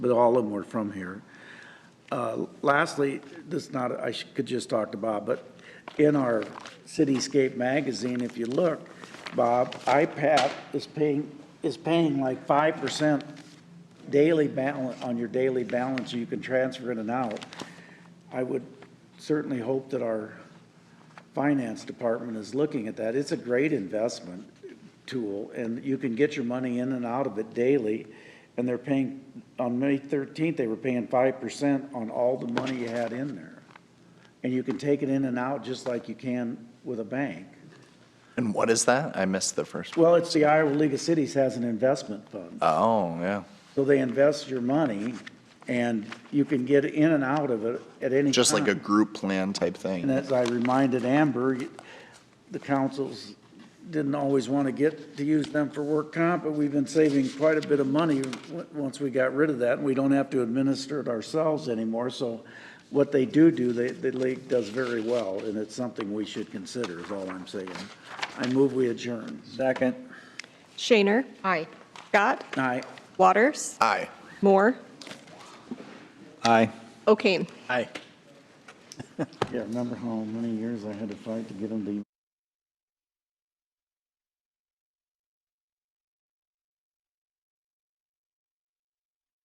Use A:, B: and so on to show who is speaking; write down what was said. A: but all of them were from here. Uh, Lastly, this not, I sh- could just talk to Bob, but in our Cityscape magazine, if you look, Bob, IPAT is paying, is paying like five percent daily balance, on your daily balance, you can transfer in and out. I would certainly hope that our finance department is looking at that. It's a great investment tool, and you can get your money in and out of it daily. And they're paying, on May thirteenth, they were paying five percent on all the money you had in there. And you can take it in and out just like you can with a bank.
B: And what is that? I missed the first.
A: Well, it's the Iowa League of Cities has an investment fund.
B: Oh, yeah.
A: So they invest your money, and you can get in and out of it at any time.
B: Just like a group plan type
A: And
B: thing.
A: as I reminded Amber, the councils didn't always want to get to use them for work comp, but we've been saving quite a bit of money w- once we got rid of that, and we don't have to administer it ourselves anymore. So what they do do, they, the league does very well, and it's something we should consider, is all I'm saying. I move we adjourn. Second.
C: Shaner. Aye. Scott.
A: Aye.
C: Waters.
B: Aye.
C: Moore.
B: Aye.
C: O'Kane.
B: Aye.
A: Yeah, remember how many years I had to fight to get them to